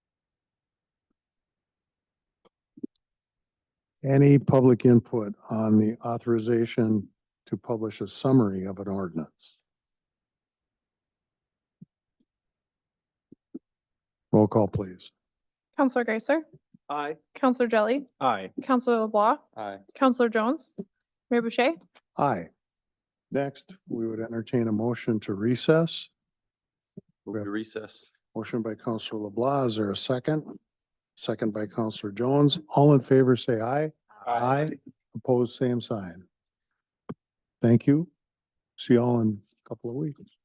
Any public input on the authorization to publish a summary of an ordinance? Roll call, please. Counselor Geisler, Aye. Counselor Jelly, Aye. Counselor LeBlanc, Aye. Counselor Jones, Mayor Boucher. Aye. Next, we would entertain a motion to recess. Move to recess. Motion by Counselor LeBlanc. Is there a second? Second by Counselor Jones. All in favor, say aye. Opposed, same sign. Thank you. See y'all in a couple of weeks.